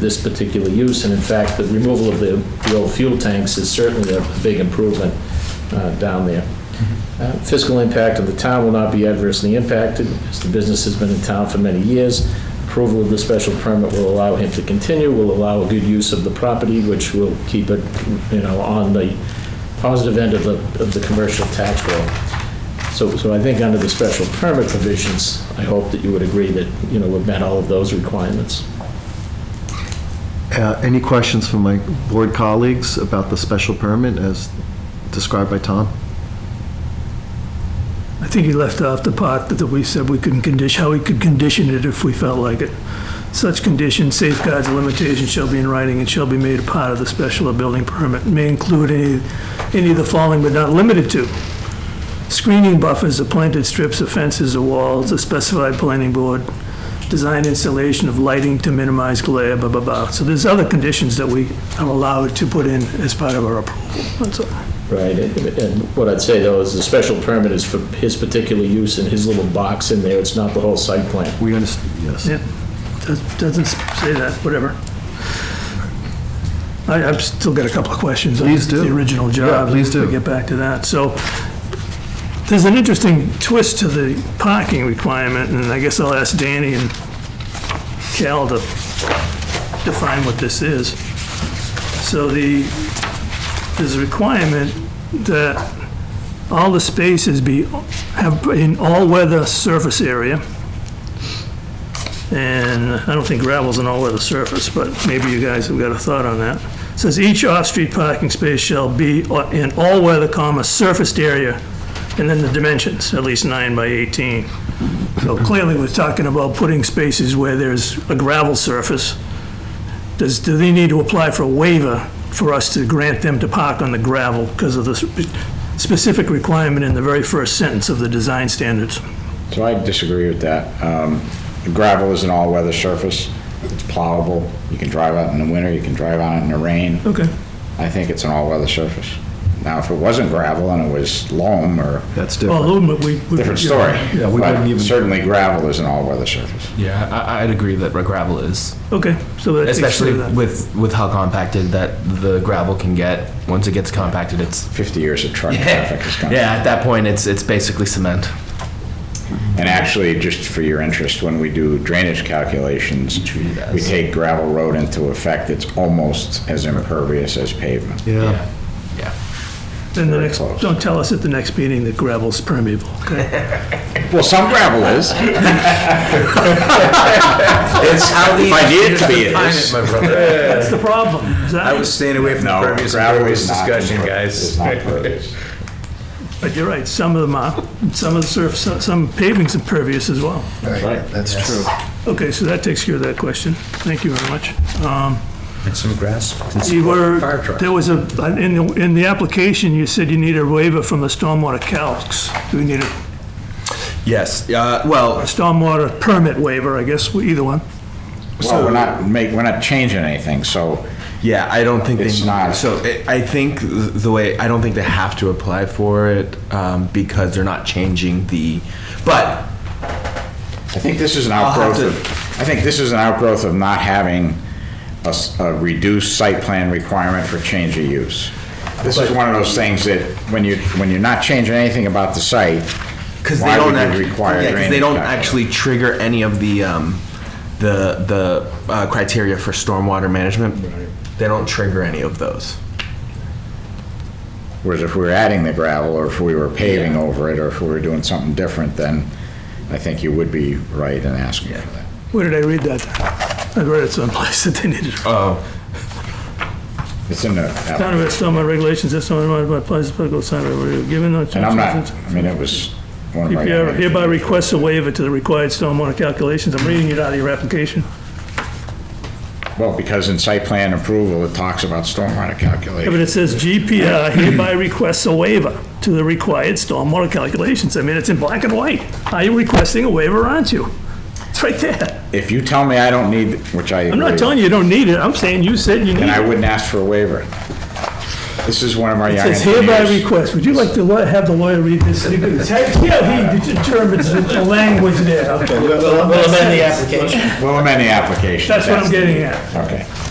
this particular use, and in fact, the removal of the, the old fuel tanks is certainly a big improvement uh, down there. Uh, Fiscal impact of the town will not be adversely impacted, as the business has been in town for many years. Approval of the special permit will allow him to continue, will allow a good use of the property, which will keep it, you know, on the positive end of the, of the commercial tax roll. So, so I think under the special permit provisions, I hope that you would agree that, you know, we've met all of those requirements. Uh, Any questions from my board colleagues about the special permit as described by Tom? I think he left off the part that we said we couldn't condition, how we could condition it if we felt like it. Such conditions, safeguards, and limitations shall be in writing and shall be made a part of the special or building permit. May include any, any of the following but not limited to. Screening buffers or planted strips of fences or walls, a specified planning board, design installation of lighting to minimize glare, blah, blah, blah. So there's other conditions that we are allowed to put in as part of our approval. That's all. Right, and and what I'd say though is the special permit is for his particular use in his little box in there, it's not the whole site plan. We understand, yes. Yeah, does- doesn't say that, whatever. I, I've still got a couple of questions. on Please do. The original job. Yeah, please do. We'll get back to that. So there's an interesting twist to the parking requirement, and I guess I'll ask Danny and Cal to define what this is. So the, there's a requirement that all the spaces be, have an all-weather surface area. And I don't think gravel's an all-weather surface, but maybe you guys have got a thought on that. Says each off-street parking space shall be in all-weather, comma, surfaced area, and then the dimensions, at least nine by 18. So clearly, we're talking about putting spaces where there's a gravel surface. Does, do they need to apply for a waiver for us to grant them to park on the gravel because of the spe- specific requirement in the very first sentence of the design standards? So I disagree with that. Um, Gravel is an all-weather surface. It's plowable. You can drive out in the winter, you can drive on it in the rain. Okay. I think it's an all-weather surface. Now, if it wasn't gravel and it was loam or That's Well, different. aluminum, we. we- different story. Yeah, we But wouldn't even- Certainly gravel is an all-weather surface. Yeah, I, I'd agree that gravel is, Okay, so that takes care especially of that. with with how compacted that the gravel can get. Once it gets compacted, it's 50 years of truck traffic is yeah. coming. At that point, it's it's basically cement. And actually, just for your interest, when we do drainage calculations, Treat it as- we take gravel road into effect. It's almost as impervious as pavement. Yeah. yeah. Then the Very next, close. don't tell us at the next meeting that gravel's permeable, okay? Well, some gravel is. It's, if I need it to be, it is. That's the problem. is that- I was staying away from the No, previous gravel is not discussion, impervious. It's guys. not impervious. But you're right, some of them are, some of the surf, some- some paving's impervious as well. That's true. Okay, so that takes care of that question. Thank you very much. Um, And some grass. and some You were, Fire truck. there was a, uh, in, the- in the application, you said you need a waiver from the stormwater calcs. Do we need a Yes, uh, well, stormwater permit waiver, I guess, either one? Well, we're not make, we're not changing anything, so yeah, I don't think It's they. not. So I- I think th- the way I don't think they have to apply for it um, because they're not changing the. But I think this is an I'll have outgrowth of, I think this is an outgrowth of not having a, s- a reduced site plan requirement for change of use. This is one of those things that when you, when you're not changing anything about the site, because they why don't would actually, you require yeah, 'cause they drainage don't calculus? actually trigger any of the um, the the uh, criteria for stormwater management. They don't trigger any of those. Whereas if we were adding the gravel, or if we were paving over it, or if we were doing something different, then I think you would be right in asking for that. Where did I read that? I read it someplace that they needed. Oh, It's in the Town of application. Estoma regulations, Estoma, my place, political center, were given no. And I'm not, I mean, it was one of my. DPR hereby requests a waiver to the required stormwater calculations. I'm reading it out of your application. Well, because in site plan approval, it talks about stormwater Yeah, But calculation. it says GPR hereby requests a waiver to the required stormwater calculations. I mean, it's in black and white. Are you requesting a waiver, aren't you? It's right there. If you tell me I don't need, which I. I'm not telling you you don't need it. I'm saying you said you need And I it. wouldn't ask for a waiver. This is one of our It young says hereby engineers. request, would you like to li- have the lawyer read this? Because yeah, he determines the- the language there. We'll amend the application. We'll amend the application. That's what I'm getting at. Okay.